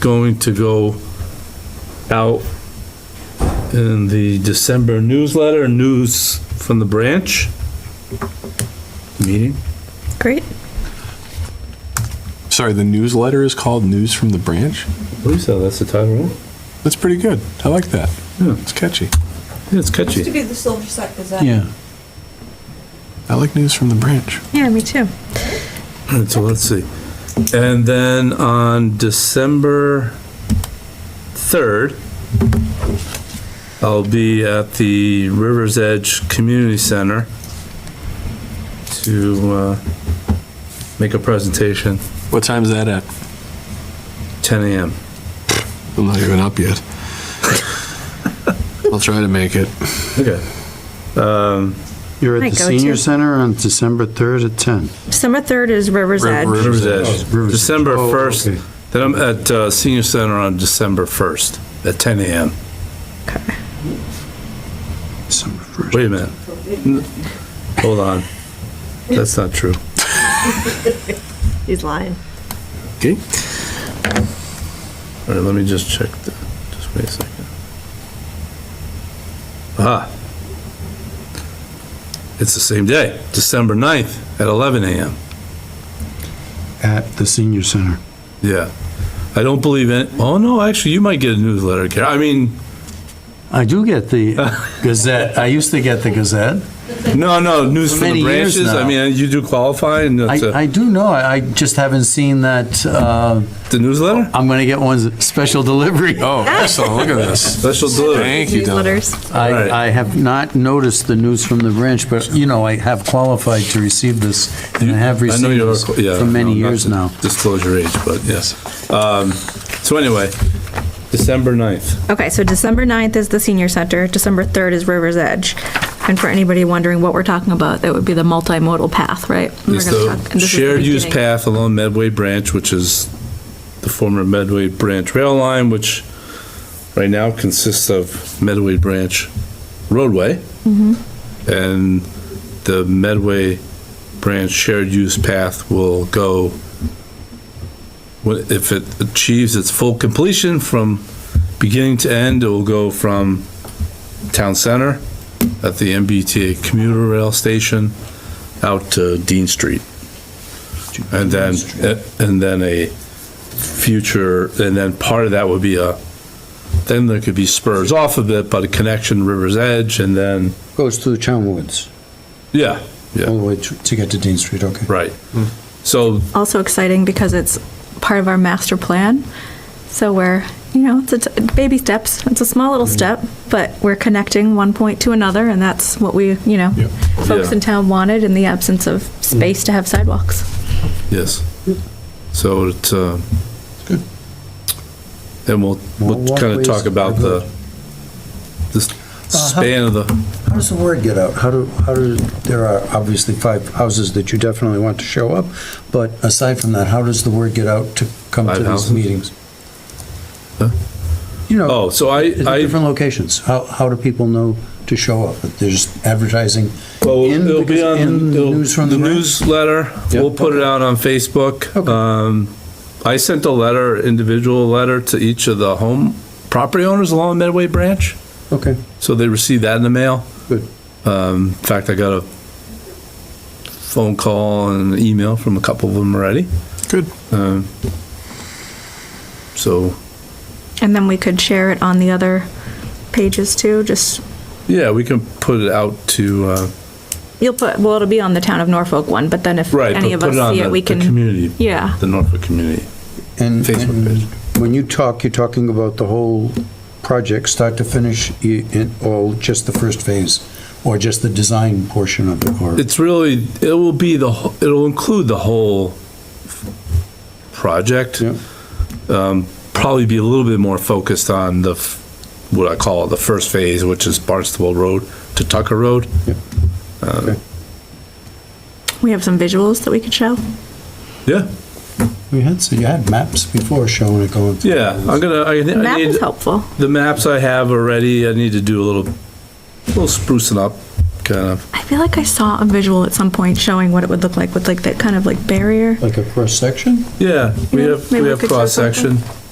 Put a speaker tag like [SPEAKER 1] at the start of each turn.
[SPEAKER 1] going to go out in the December newsletter, news from the branch meeting.
[SPEAKER 2] Great.
[SPEAKER 3] Sorry, the newsletter is called News from the Branch?
[SPEAKER 1] I believe so, that's the title, right?
[SPEAKER 3] That's pretty good. I like that.
[SPEAKER 1] Yeah.
[SPEAKER 3] It's catchy.
[SPEAKER 1] Yeah, it's
[SPEAKER 4] Used to
[SPEAKER 1] catchy.
[SPEAKER 4] be the Silver Set Gazette.
[SPEAKER 3] Yeah. I like News from the Branch.
[SPEAKER 2] Yeah, me too.
[SPEAKER 1] All right, So let's see. And then on December 3rd, I'll be at the Rivers Edge Community Center to uh, make a presentation,
[SPEAKER 3] What time's that at?
[SPEAKER 1] 10 a.m.
[SPEAKER 3] I'm not even up yet. I'll try to make it.
[SPEAKER 1] Okay. Um,
[SPEAKER 5] You're
[SPEAKER 2] My
[SPEAKER 5] at the
[SPEAKER 2] go-to.
[SPEAKER 5] senior center on December 3rd at 10.
[SPEAKER 2] December 3rd is River's Edge.
[SPEAKER 3] River-
[SPEAKER 1] Rivers
[SPEAKER 5] Oh,
[SPEAKER 1] Edge,
[SPEAKER 5] Rivers Edge.
[SPEAKER 1] December
[SPEAKER 5] Oh,
[SPEAKER 1] 1st.
[SPEAKER 5] okay.
[SPEAKER 1] Then I'm at uh, Senior Center on December 1st at 10 a.m.
[SPEAKER 5] December 1st.
[SPEAKER 1] Wait a minute. Hold on. That's not true.
[SPEAKER 2] He's lying.
[SPEAKER 3] Okay.
[SPEAKER 1] All right, let me just check the, just wait a second. Ah. It's the same day, December 9th at 11 a.m.
[SPEAKER 5] At the senior center.
[SPEAKER 1] Yeah. I don't believe in, oh no, actually, you might get a newsletter, Kara. I mean,
[SPEAKER 5] I do get the Gazette. I used to get the Gazette.
[SPEAKER 1] no, no, news from the
[SPEAKER 5] Many years
[SPEAKER 1] branches. I
[SPEAKER 5] now.
[SPEAKER 1] mean, you do qualify and that's
[SPEAKER 5] I,
[SPEAKER 1] a-
[SPEAKER 5] I do know, I I just haven't seen that, uh,
[SPEAKER 1] the newsletter?
[SPEAKER 5] I'm going to get one special delivery.
[SPEAKER 3] Oh, excellent. Look at this.
[SPEAKER 1] Special delivery.
[SPEAKER 3] Thank you, Don.
[SPEAKER 2] Newsletters.
[SPEAKER 1] Right.
[SPEAKER 5] I, I have not noticed the news from the branch, but, you know, I have qualified to receive this, and I have
[SPEAKER 1] I know
[SPEAKER 5] received
[SPEAKER 1] you're,
[SPEAKER 5] this
[SPEAKER 1] yeah.
[SPEAKER 5] for many
[SPEAKER 1] no, not
[SPEAKER 5] years
[SPEAKER 1] to
[SPEAKER 5] now.
[SPEAKER 1] Disclose your age, but yes. Um, So anyway, December 9th.
[SPEAKER 2] Okay, so December 9th is the senior center, December 3rd is River's Edge. And for anybody wondering what we're talking about, that would be the multimodal path, right? We're
[SPEAKER 1] It's
[SPEAKER 2] gonna
[SPEAKER 1] the
[SPEAKER 2] talk- and this is the
[SPEAKER 1] shared use
[SPEAKER 2] beginning.
[SPEAKER 1] path along Medway Branch, which is the former Medway Branch rail line, which right now consists of Medway Branch roadway
[SPEAKER 2] Mm-hmm.
[SPEAKER 1] and the Medway Branch shared use path will go, wh- if it achieves its full completion from beginning to end, it will go from town center at the MBTA commuter rail station out to Dean Street. And then, and then a future, and then part of that would be a, then there could be spurs off of it, but a connection River's Edge, and then,
[SPEAKER 5] Goes through the Town Woods,
[SPEAKER 1] yeah, yeah.
[SPEAKER 5] all the way to to get to Dean Street, okay.
[SPEAKER 1] Right. So,
[SPEAKER 2] Also exciting because it's part of our master plan. So we're, you know, it's a t- baby steps. It's a small
[SPEAKER 1] Mm.
[SPEAKER 2] little step, but we're connecting one point to another, and that's what we, you know,
[SPEAKER 3] Yep.
[SPEAKER 2] folks
[SPEAKER 1] Yeah.
[SPEAKER 2] in town wanted in the absence of space to have sidewalks.
[SPEAKER 1] yes. So it's, uh.
[SPEAKER 3] Good.
[SPEAKER 1] And we'll, we'll
[SPEAKER 6] More
[SPEAKER 1] kind of talk
[SPEAKER 6] walkways
[SPEAKER 1] about
[SPEAKER 6] are
[SPEAKER 1] the,
[SPEAKER 6] good.
[SPEAKER 1] the s- span of the,
[SPEAKER 6] How does the word get out? How do, how do, there are obviously five houses that you definitely want to show up, but aside from that, how does the word get out to come
[SPEAKER 1] Five
[SPEAKER 6] to
[SPEAKER 1] houses?
[SPEAKER 6] these meetings?
[SPEAKER 1] Huh?
[SPEAKER 6] You know,
[SPEAKER 1] oh, so I,
[SPEAKER 6] at the
[SPEAKER 1] I,
[SPEAKER 6] different locations, how, how do people know to show up? There's advertising
[SPEAKER 1] well,
[SPEAKER 6] in,
[SPEAKER 1] it'll be
[SPEAKER 6] because
[SPEAKER 1] on,
[SPEAKER 6] in the news
[SPEAKER 1] it'll-
[SPEAKER 6] from
[SPEAKER 1] the
[SPEAKER 6] the.
[SPEAKER 1] newsletter, we'll put it out on Facebook.
[SPEAKER 6] Okay.
[SPEAKER 1] Um, I sent a letter, individual letter to each of the home property owners along Medway Branch.
[SPEAKER 6] Okay,
[SPEAKER 1] So they received that in the mail.
[SPEAKER 6] Good.
[SPEAKER 1] Um, in fact, I got a phone call and an email from a couple of them already.
[SPEAKER 3] Good.
[SPEAKER 1] Um, so,
[SPEAKER 2] And then we could share it on the other pages too, just,
[SPEAKER 1] yeah, we can put it out to, uh,
[SPEAKER 2] you'll put, well, it'll be on the town of Norfolk one, but then if
[SPEAKER 1] right,
[SPEAKER 2] any
[SPEAKER 1] but
[SPEAKER 2] of
[SPEAKER 1] put
[SPEAKER 2] us
[SPEAKER 1] it on
[SPEAKER 2] see
[SPEAKER 1] the,
[SPEAKER 2] it, we
[SPEAKER 1] the
[SPEAKER 2] can,
[SPEAKER 1] community,
[SPEAKER 2] yeah,
[SPEAKER 1] the Norfolk community.
[SPEAKER 6] and,
[SPEAKER 1] Facebook
[SPEAKER 6] and
[SPEAKER 1] page.
[SPEAKER 6] when you talk, you're talking about the whole project, start to finish, you, it- or just the first phase, or just the design portion of it, or?
[SPEAKER 1] It's really, it will be the, wh- it'll include the whole project.
[SPEAKER 6] Yeah.
[SPEAKER 1] Um, Probably be a little bit more focused on the, f- what I call the first phase, which is Barnstable Road to Tucker Road.
[SPEAKER 2] we have some visuals that we could show.
[SPEAKER 1] Yeah,
[SPEAKER 6] We had, so you had maps before showing it going. through.
[SPEAKER 1] yeah, I'm gonna, I
[SPEAKER 2] The
[SPEAKER 1] I
[SPEAKER 2] map
[SPEAKER 1] need,
[SPEAKER 2] is helpful.
[SPEAKER 1] the maps I have already, I need to do a little, little sprucing up, kind of.
[SPEAKER 2] I feel like I saw a visual at some point showing what it would look like with like that kind of like barrier.
[SPEAKER 6] Like a cross section?
[SPEAKER 1] Yeah, we
[SPEAKER 2] Yeah,
[SPEAKER 1] have, we
[SPEAKER 2] maybe we
[SPEAKER 1] have
[SPEAKER 2] could show
[SPEAKER 1] cross-section.